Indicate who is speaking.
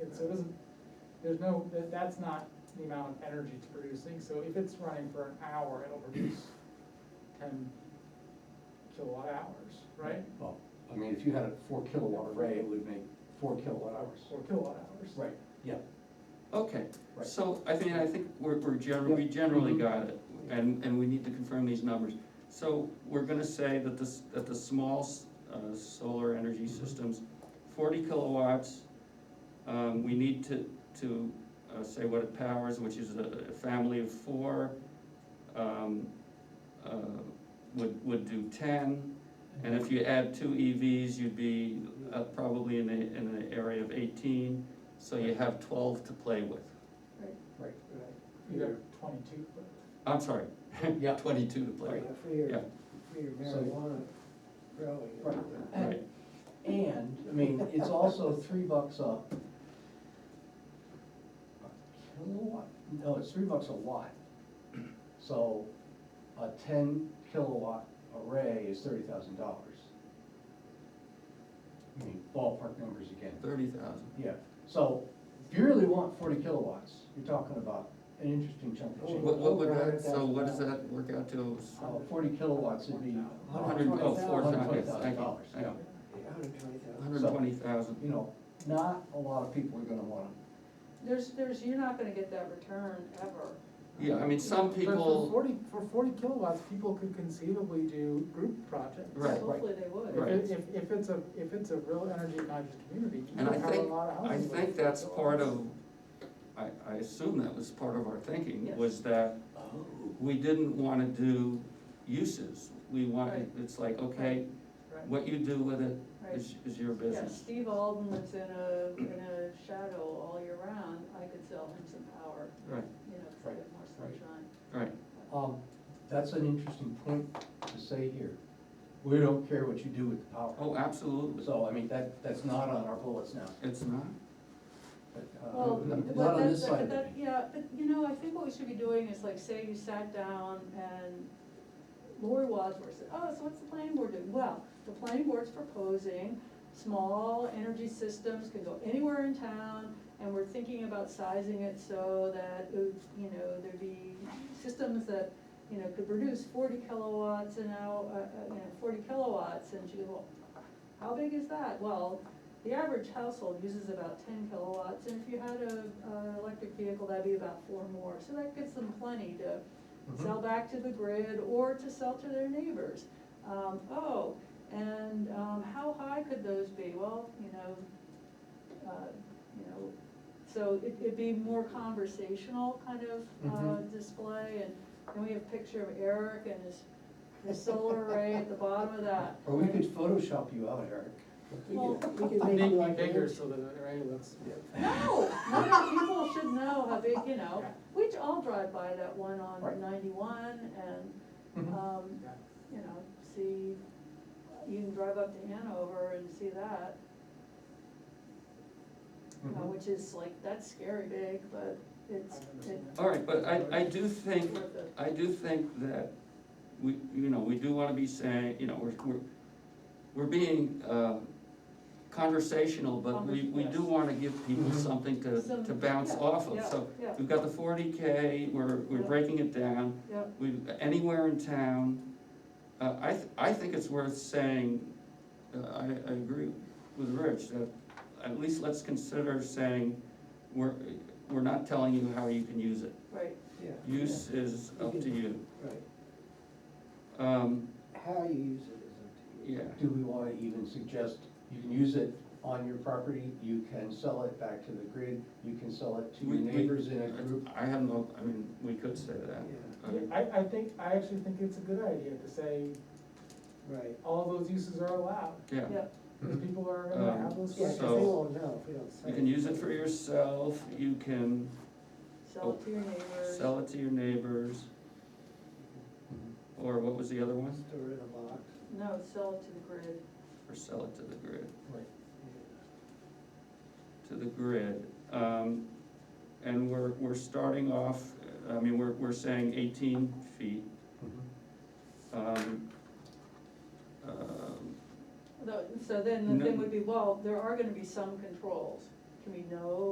Speaker 1: it, so it doesn't, there's no, that, that's not the amount of energy it's producing, so if it's running for an hour, it'll produce ten kilowatt hours, right?
Speaker 2: Well, I mean, if you had a four kilowatt array, it would make four kilowatt hours.
Speaker 1: Or kilowatt hours.
Speaker 2: Right, yeah,
Speaker 3: Okay,
Speaker 2: Right.
Speaker 3: so I think, I think we're, we're generally, we
Speaker 2: Yeah.
Speaker 3: generally
Speaker 2: Mhm.
Speaker 3: got it, and, and we need to confirm these numbers. So we're gonna say that this, that the small, s- uh, solar energy
Speaker 2: Mhm.
Speaker 3: systems, forty kilowatts, um, we need to, to, uh, say what it powers, which is a, a family of four, um, uh, would, would do ten. And if you add two EVs, you'd be, uh, probably in a, in an area of eighteen, so you have twelve to play with.
Speaker 2: right.
Speaker 1: You got twenty-two, but
Speaker 3: I'm sorry,
Speaker 2: Yeah.
Speaker 3: twenty-two to play
Speaker 2: Right.
Speaker 3: with,
Speaker 4: For your,
Speaker 3: yeah,
Speaker 4: for your
Speaker 2: So-
Speaker 4: marijuana growing.
Speaker 2: Right.
Speaker 3: right.
Speaker 2: And, I mean, it's also three bucks a a kilowatt, no, it's three bucks a watt. So a ten kilowatt array is thirty thousand dollars. I mean, ballpark numbers again.
Speaker 3: Thirty thousand.
Speaker 2: Yeah, so if you really want forty kilowatts, you're talking about an interesting chunk of
Speaker 3: What,
Speaker 2: change.
Speaker 3: what would
Speaker 4: Over
Speaker 3: that, so what does that
Speaker 4: $100,000.
Speaker 3: work out to?
Speaker 2: Uh, Forty kilowatts would be.
Speaker 3: A Hundred, oh, four
Speaker 2: $120,000.
Speaker 3: times, thank you,
Speaker 2: $120,000,
Speaker 3: thank you,
Speaker 4: Hundred and twenty thousand.
Speaker 3: hundred and twenty thousand,
Speaker 2: You know, not a lot of people are gonna wanna,
Speaker 5: There's, there's, you're not gonna get that return ever.
Speaker 3: yeah, I mean, some
Speaker 1: but for
Speaker 3: people,
Speaker 1: forty, for forty kilowatts, people could conceivably do group projects.
Speaker 3: Right.
Speaker 5: Hopefully they would.
Speaker 3: Right.
Speaker 1: If, if, if it's a, if it's a real energy conscious community, you can
Speaker 3: and I
Speaker 1: have a
Speaker 3: think,
Speaker 1: lot of houses.
Speaker 3: I
Speaker 1: with
Speaker 3: think that's part
Speaker 1: kilowatts.
Speaker 3: of, I, I assume that was part of our thinking,
Speaker 5: Yes.
Speaker 3: was that
Speaker 2: oh,
Speaker 3: we didn't wanna do uses. We
Speaker 5: Right.
Speaker 3: wanted, it's like, okay,
Speaker 1: Right.
Speaker 3: what you do with it
Speaker 5: Right.
Speaker 3: is, is your
Speaker 5: Yeah,
Speaker 3: business.
Speaker 5: Steve Alden lives in a, in a shadow all year round, I could sell him some power,
Speaker 3: Right,
Speaker 5: you know, to get more
Speaker 2: Right.
Speaker 5: sunshine.
Speaker 3: right,
Speaker 2: Um, that's an interesting point to say here. We don't care what you do with the power.
Speaker 3: oh, absolutely,
Speaker 2: So, I mean, that, that's not on our bullets now,
Speaker 3: it's not,
Speaker 2: but, uh,
Speaker 5: Well,
Speaker 2: not
Speaker 5: but
Speaker 2: on this
Speaker 5: that's,
Speaker 2: side
Speaker 5: but
Speaker 2: of it.
Speaker 5: that, yeah, but you know, I think what we should be doing is like, say you sat down and Lori Wadsworth said, oh, so what's the planning board doing? Well, the planning board's proposing small energy systems can go anywhere in town, and we're thinking about sizing it so that, it would, you know, there'd be systems that, you know, could produce forty kilowatts an hour, uh, uh, you know, forty kilowatts, and she goes, well, how big is that? Well, the average household uses about ten kilowatts, and if you had a, uh, electric vehicle, that'd be about four more, so that gets them plenty to
Speaker 2: Mhm.
Speaker 5: sell back to the grid or to sell to their neighbors. Um, oh, and, um, how high could those be? Well, you know, uh, you know, so it, it'd be more conversational kind of, uh,
Speaker 2: Mhm.
Speaker 5: display, and then we have a picture of Eric and his, his solar array at the bottom of that.
Speaker 2: Or we could Photoshop you out, Eric.
Speaker 4: We
Speaker 5: Well-
Speaker 4: could, we could make
Speaker 1: Make
Speaker 4: it
Speaker 1: me
Speaker 4: like. an
Speaker 1: bigger
Speaker 4: inch.
Speaker 1: so that, it- right, let's,
Speaker 5: No, no, people should know how big, you know, we all drive by that one
Speaker 2: Right.
Speaker 5: on ninety-one and,
Speaker 2: Mhm.
Speaker 5: um,
Speaker 1: yeah.
Speaker 5: you know, see, you can drive up to Hanover and see that, uh,
Speaker 2: Mhm.
Speaker 5: which is like, that's scary big, but it's,
Speaker 1: I've never
Speaker 5: it-
Speaker 1: seen that.
Speaker 3: all right, but I, I do think,
Speaker 5: it's worth it.
Speaker 3: I do think that we, you know, we do wanna be saying, you know, we're, we're, we're being, uh, conversational, but we, we do
Speaker 5: Convers- yes.
Speaker 3: wanna give people
Speaker 2: Mhm.
Speaker 3: something to,
Speaker 5: Some-
Speaker 3: to bounce
Speaker 5: yeah,
Speaker 3: off of,
Speaker 5: yeah,
Speaker 3: so
Speaker 5: yeah.
Speaker 3: we've got the forty K, we're, we're
Speaker 5: Yeah.
Speaker 3: breaking it down,
Speaker 5: Yep,
Speaker 3: we, anywhere in town, uh, I, th- I think it's worth saying, uh, I, I agree with Rich, that at least let's consider saying, we're, we're not telling you how you can use it.
Speaker 5: right,
Speaker 4: Yeah.
Speaker 3: Use is up to you.
Speaker 4: Right,
Speaker 3: Um,
Speaker 4: how you use it is up to you.
Speaker 3: yeah,
Speaker 2: Do we wanna even suggest, you can use it on your property, you can sell it back to the grid, you can sell it to your
Speaker 3: We- we-
Speaker 2: neighbors in a group?
Speaker 3: I have no, I mean, we could say that. Um,
Speaker 4: Yeah.
Speaker 3: I mean,
Speaker 1: I, I think, I actually think it's a good idea to say
Speaker 4: Right.
Speaker 1: all those uses are allowed,
Speaker 3: Yeah,
Speaker 5: yep,
Speaker 1: because people are
Speaker 3: Um,
Speaker 1: gonna have those
Speaker 4: Uh, Yeah, 'cause
Speaker 1: questions.
Speaker 4: they
Speaker 3: So-
Speaker 4: won't know if we don't say.
Speaker 3: you can use it for yourself, you can
Speaker 5: sell it to your neighbors.
Speaker 3: sell it to your neighbors,
Speaker 2: Mm-hmm.
Speaker 3: or what was the other one?
Speaker 4: Store in a box.
Speaker 5: No, sell it to the grid,
Speaker 3: Or sell it to the grid.
Speaker 2: Right.
Speaker 3: to the grid. Um, And we're, we're starting off, I mean, we're, we're saying eighteen feet.
Speaker 2: Mhm.
Speaker 3: Um, um,
Speaker 5: Though- so then the
Speaker 3: No.
Speaker 5: thing would be, well, there are gonna be some controls, can we know